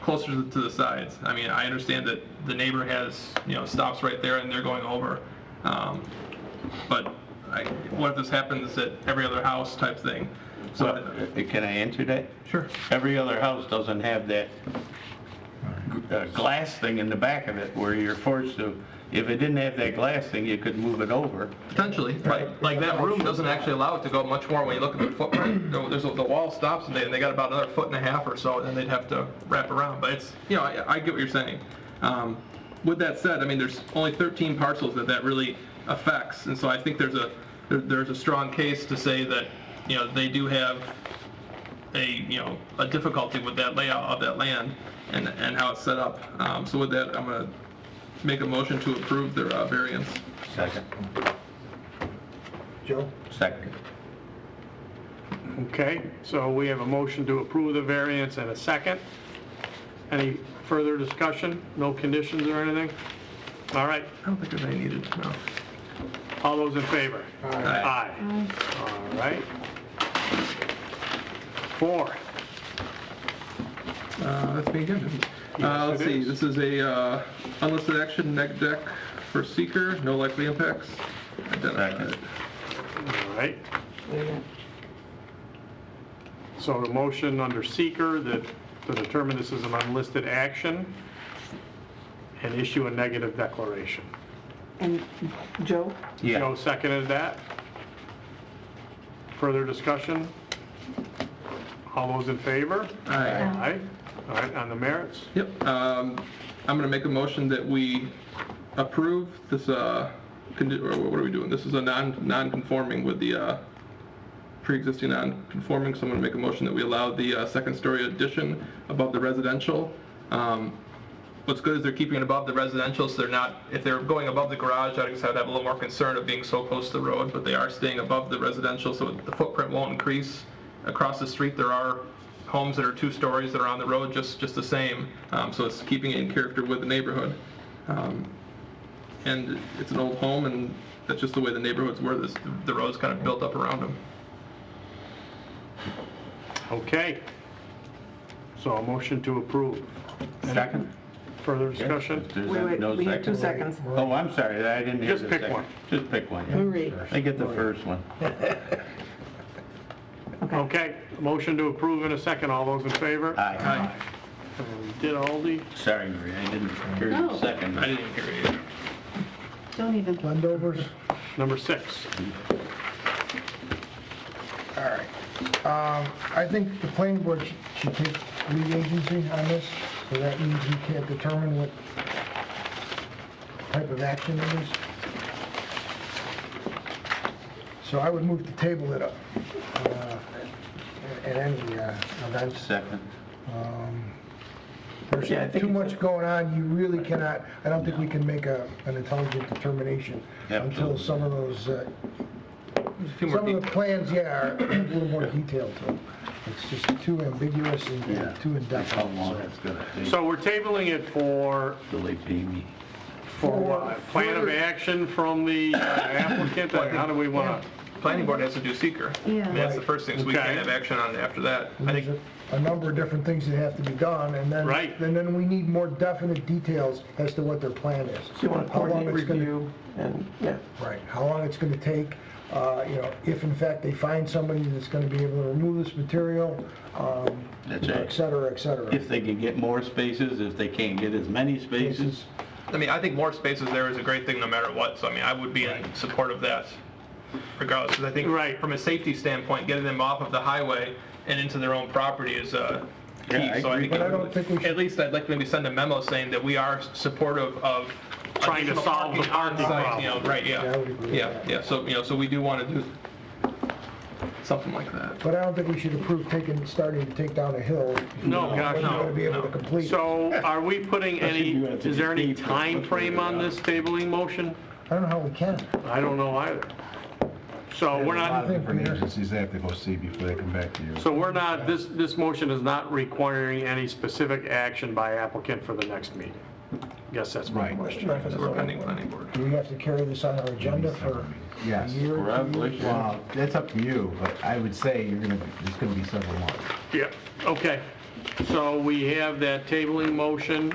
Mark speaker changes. Speaker 1: closer to the sides. I mean, I understand that the neighbor has, you know, stops right there and they're going over. Um, But I, what if this happens at every other house type thing? So,
Speaker 2: Well, uh, Can I answer that?
Speaker 1: Sure.
Speaker 2: Every other house doesn't have that g- uh, glass thing in the back of it where you're forced to, if it didn't have that glass thing, you could move it over.
Speaker 1: Potentially, but like that room doesn't actually allow it to go much more when you look at the footprint. No, There's, a- the wall stops and they, and they got about another foot and a half or so, and then they'd have to wrap around. But it's, you know, I, I get what you're saying. Um, with that said, I mean, there's only 13 parcels that that really affects, and so I think there's a, there, there's a strong case to say that, you know, they do have a, you know, a difficulty with that layout of that land and, and how it's set up. Um, so with that, I'm gonna make a motion to approve their uh, variance.
Speaker 2: Second.
Speaker 3: Joe?
Speaker 2: Second.
Speaker 4: Okay, so we have a motion to approve the variance and a second. Any further discussion? No conditions or anything? All right,
Speaker 1: I don't think there's any needed, no.
Speaker 4: all those in favor?
Speaker 1: Aye.
Speaker 4: Aye. All right. Four.
Speaker 1: Uh, That's me again. Uh, Let's
Speaker 4: it
Speaker 1: see,
Speaker 4: is.
Speaker 1: this is a uh, unlisted action, neg deck for seeker, no likely impacts. Identified.
Speaker 2: Second.
Speaker 4: All right,
Speaker 3: Second.
Speaker 4: so the motion under seeker that, to determine this is an unlisted action and issue a negative declaration.
Speaker 3: And Joe?
Speaker 2: Yeah.
Speaker 4: Joe seconded that. Further discussion? All those in favor?
Speaker 1: Aye.
Speaker 4: Aye. All right, on the merits?
Speaker 1: Yep, um, I'm gonna make a motion that we approve this, uh, condi- or what are we doing? This is a non, non-conforming with the uh, pre-existing non-conforming, so I'm gonna make a motion that we allow the uh, second-story addition above the residential. Um, What's good is they're keeping it above the residential, so they're not, if they're going above the garage, I guess I'd have a little more concern of being so close to the road, but they are staying above the residential, so the footprint won't increase. Across the street, there are homes that are two stories that are on the road just, just the same, um, so it's keeping it in character with the neighborhood. Um, And it's an old home, and that's just the way the neighborhoods were, this, the road's kind of built up around them.
Speaker 4: Okay. So a motion to approve.
Speaker 2: Second?
Speaker 4: Further discussion?
Speaker 2: If there's
Speaker 3: Wait, wait,
Speaker 2: no
Speaker 3: we have two
Speaker 2: second.
Speaker 3: seconds.
Speaker 2: Oh, I'm sorry, I didn't hear
Speaker 4: Just
Speaker 2: the
Speaker 4: pick
Speaker 2: second.
Speaker 4: one.
Speaker 2: Just pick one. yeah.
Speaker 3: Marie.
Speaker 2: I get the first one.
Speaker 4: Okay, motion to approve in a second. All those in favor?
Speaker 2: Aye.
Speaker 4: And we Did Aldi?
Speaker 2: Sorry, Marie, I didn't hear the
Speaker 5: No.
Speaker 2: second.
Speaker 1: I didn't even hear it either.
Speaker 5: Don't even.
Speaker 6: Landovers.
Speaker 4: Number six.
Speaker 6: All right. Um, I think the planning board should- should take lead agency on this, so that means he can't determine what type of action it is. So I would move to table it up uh, at any uh, event.
Speaker 2: Second.
Speaker 6: Um,
Speaker 2: Yeah, I
Speaker 6: There's
Speaker 2: think
Speaker 6: too
Speaker 2: it's-
Speaker 6: much going on, you really cannot, I don't think we can make a, an intelligent determination until
Speaker 2: Absolutely.
Speaker 6: some of those, uh,
Speaker 1: There's a few more
Speaker 6: some of
Speaker 1: people.
Speaker 6: the plans, yeah, are a little more detailed to them. It's just too ambiguous and
Speaker 2: Yeah.
Speaker 6: and too
Speaker 2: That's how
Speaker 6: indefinite.
Speaker 2: long
Speaker 6: so.
Speaker 2: it's gonna take
Speaker 4: So we're tabling it for,
Speaker 2: till they pay me.
Speaker 4: for what? Plan of
Speaker 6: Further-
Speaker 4: action from the uh, applicant? Or How do we want to?
Speaker 1: Planning board has to do seeker. I mean, That's the first thing, so we
Speaker 4: Okay.
Speaker 1: can't have action on it after that. I
Speaker 6: There's
Speaker 1: think,
Speaker 6: a- a number of different things that have to be done, and then,
Speaker 4: Right.
Speaker 6: and then we need more definite details as to what their plan is.
Speaker 7: You want to
Speaker 6: How long
Speaker 7: coordinate
Speaker 6: it's gonna-
Speaker 7: review and, yeah.
Speaker 6: Right, how long it's gonna take, uh, you know, if in fact they find somebody that's gonna be able to remove this material, um,
Speaker 2: That's
Speaker 6: et
Speaker 2: right.
Speaker 6: cetera, et cetera.
Speaker 2: If they can get more spaces, if they can't get as many spaces,
Speaker 1: I mean, I think more spaces there is a great thing no matter what, so I mean, I would be in support of that regardless, because I think
Speaker 4: Right.
Speaker 1: from a safety standpoint, getting them off of the highway and into their own property is uh, key.
Speaker 2: Yeah, I
Speaker 1: So
Speaker 2: agree.
Speaker 1: think
Speaker 2: But
Speaker 6: I don't think we should-
Speaker 1: At least I'd like to maybe send a memo saying that we are supportive of
Speaker 4: Trying to
Speaker 1: additional
Speaker 4: solve the parking
Speaker 1: on-site,
Speaker 4: problem.
Speaker 1: You know, right,
Speaker 6: Yeah, I
Speaker 1: yeah.
Speaker 6: would agree with
Speaker 1: Yeah,
Speaker 6: that.
Speaker 1: yeah, so, you know, so we do want to do something like that.
Speaker 6: But I don't think we should approve taking, starting to take down a hill.
Speaker 4: No, gosh,
Speaker 6: We're
Speaker 4: no,
Speaker 6: gonna be able to
Speaker 1: no.
Speaker 6: complete. it.
Speaker 4: So are we putting any,
Speaker 2: you have to
Speaker 4: is there any
Speaker 2: deep-
Speaker 4: time frame on this tabling motion?
Speaker 6: I don't know how we can.
Speaker 4: I don't know either. So we're
Speaker 6: I
Speaker 4: not,
Speaker 6: think
Speaker 8: different
Speaker 6: Peter-
Speaker 8: agencies they have to go see before they come back to you.
Speaker 4: So we're not, this, this motion is not requiring any specific action by applicant for the next meeting? Guess that's my
Speaker 8: Right.
Speaker 4: question.
Speaker 1: So we're pending planning board.
Speaker 6: Do we have to carry this on our agenda for a
Speaker 8: Yes.
Speaker 6: year? or two years?
Speaker 2: probably.
Speaker 8: Well, that's up to you, but I would say you're gonna, it's gonna be several months.
Speaker 4: Yeah, okay. So we have that tabling motion